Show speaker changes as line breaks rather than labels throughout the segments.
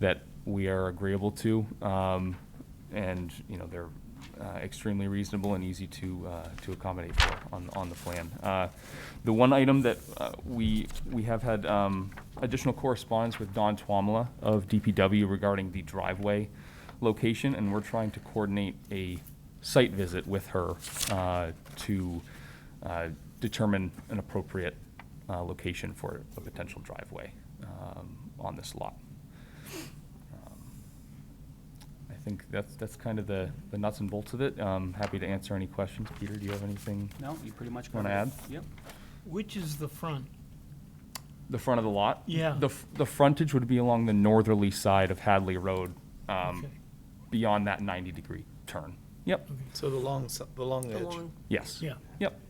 that we are agreeable to. Um, and, you know, they're uh, extremely reasonable and easy to, uh, to accommodate for on, on the plan. Uh, The one item that uh, we, we have had um, additional correspondence with Don Twamala of DPW regarding the driveway location, and we're trying to coordinate a site visit with her uh, to uh, determine an appropriate uh, location for a potential driveway um, on this lot. I think that's, that's kind of the, the nuts and bolts of it. Um, happy to answer any questions. Peter, do you have anything?
No, you pretty much
Wanna
covered it.
add?
Yep.
Which is the front?
The front of the lot?
Yeah.
The, f- the frontage would be along the northerly side of Hadley Road, um,
Okay.
beyond that ninety-degree turn. Yep,
Okay.
So the long, s- the long edge.
along.
yes.
Yeah.
Yep,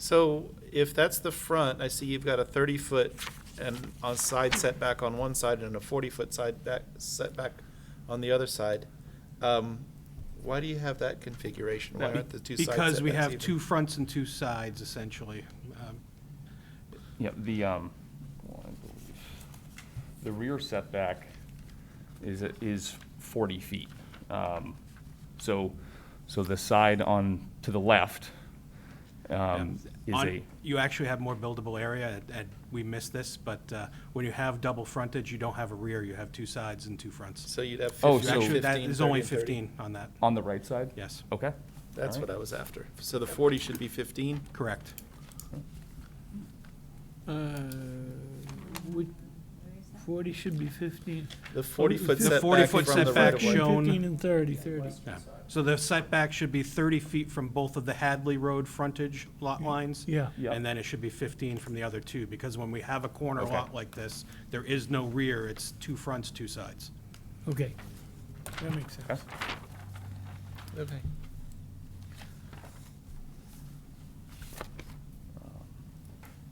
So if that's the front, I see you've got a thirty-foot and on side setback on one side and a forty-foot side back, setback on the other side. Um, Why do you have that configuration? Why
That'd
aren't the two side setbacks
Because we have
even?
two fronts and two sides essentially. Um,
yep, the, um, well, I believe- the rear setback is, is forty feet. Um, so, so the side on, to the left, um, is
on-
a,
You actually have more buildable area, and we missed this, but uh, when you have double frontage, you don't have a rear, you have two sides and two fronts.
So you'd have
Oh, so-
fifteen,
Actually,
fifteen,
that
thirty,
is only
and 30.
15 on that,
on the right side?
yes,
Okay.
That's
All right.
what I was after. So the forty should be fifteen?
correct.
Uh, which- Forty should be fifteen.
The forty-foot
The
setback from
40-foot
the
setback
right of way.
should- Shown.
Fifteen and thirty, thirty.
Yeah. So the setback should be 30 feet from both of the Hadley Road frontage lot lines.
Yeah.
Yeah.
And then it should be 15 from the other two, because when we have a corner
Okay.
lot like this, there is no rear, it's two fronts, two sides.
Okay, that makes sense.
Okay.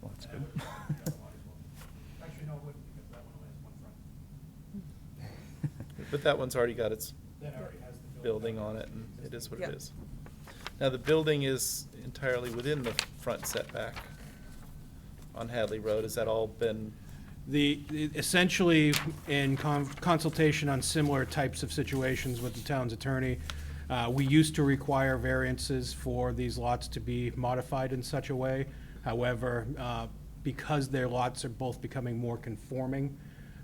Well, that's good.
Actually, no, it wouldn't, because that one only has one front.
But that one's already got its
That already has the
building on it, and it is what it
Yep.
is. Now, the building is entirely within the front setback on Hadley Road. Has that all been,
The, essentially, in con- consultation on similar types of situations with the town's attorney, uh, we used to require variances for these lots to be modified in such a way. However, uh, because their lots are both becoming more conforming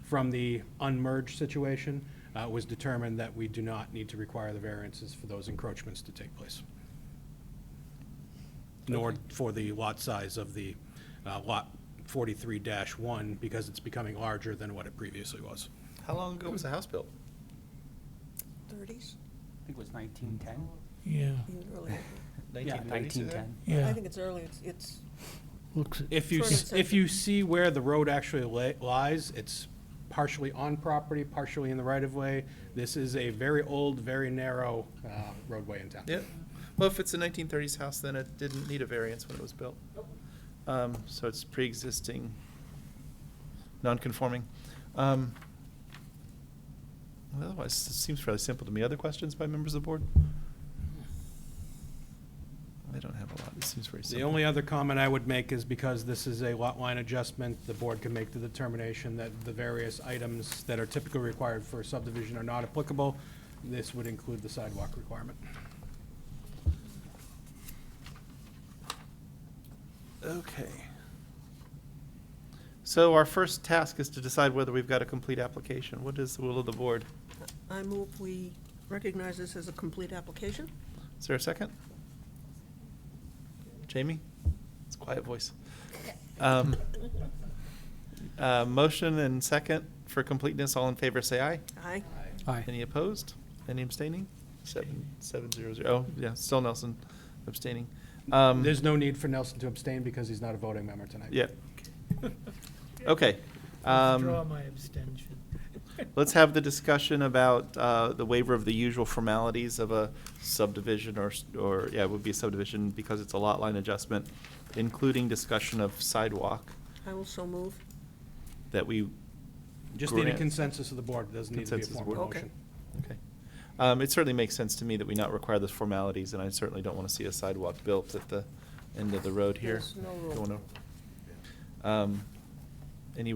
from the unmerged situation, uh, it was determined that we do not need to require the variances for those encroachments to take place. Nor for the lot size of the uh, lot 43-1, because it's becoming larger than what it previously was.
how long ago was the house built?
Thirties?
I think it was nineteen ten.
Yeah,
Even earlier.
Yeah,
1990s,
nineteen
is it?
ten.
I
yeah,
think it's early, it's, it's,
looks, it.
If you,
Sort of
s- if
circular.
you see where the road actually li- lies, it's partially on property, partially in the right-of-way. This is a very old, very narrow uh, roadway in town.
Yeah. Well, if it's a nineteen thirties house, then it didn't need a variance when it was built. Um, so it's pre-existing, non-conforming. Um, well, Otherwise, it seems fairly simple to me. Other questions by members of the board? I don't have a lot. It seems very simple.
The only other comment I would make is because this is a lot line adjustment, the board can make the determination that the various items that are typically required for subdivision are not applicable. This would include the sidewalk requirement.
Okay. So our first task is to decide whether we've got a complete application. What is the will of the board?
I move we recognize this as a complete application.
Is there a second? Jamie? It's a quiet voice. Um, uh, Motion and second for completeness. All in favor, say aye.
Aye.
Aye.
Any opposed? Any abstaining? Seven, seven zero zero. Oh, yeah, still Nelson abstaining. Um,
There's no need for Nelson to abstain because he's not a voting member tonight.
Yeah. Okay. Um,
Withdraw my abstention.
Let's have the discussion about uh, the waiver of the usual formalities of a subdivision or, s- or, yeah, it would be a subdivision because it's a lot line adjustment, including discussion of sidewalk
I will so move.
that we,
Just need a
Grant.
consensus of the board, it doesn't need to be a
Consensus
formal
board. Okay.
motion.
okay. Um, It certainly makes sense to me that we not require those formalities, and I certainly don't want to see a sidewalk built at the end of the road here.
There's no road.
Don't wanna- Um,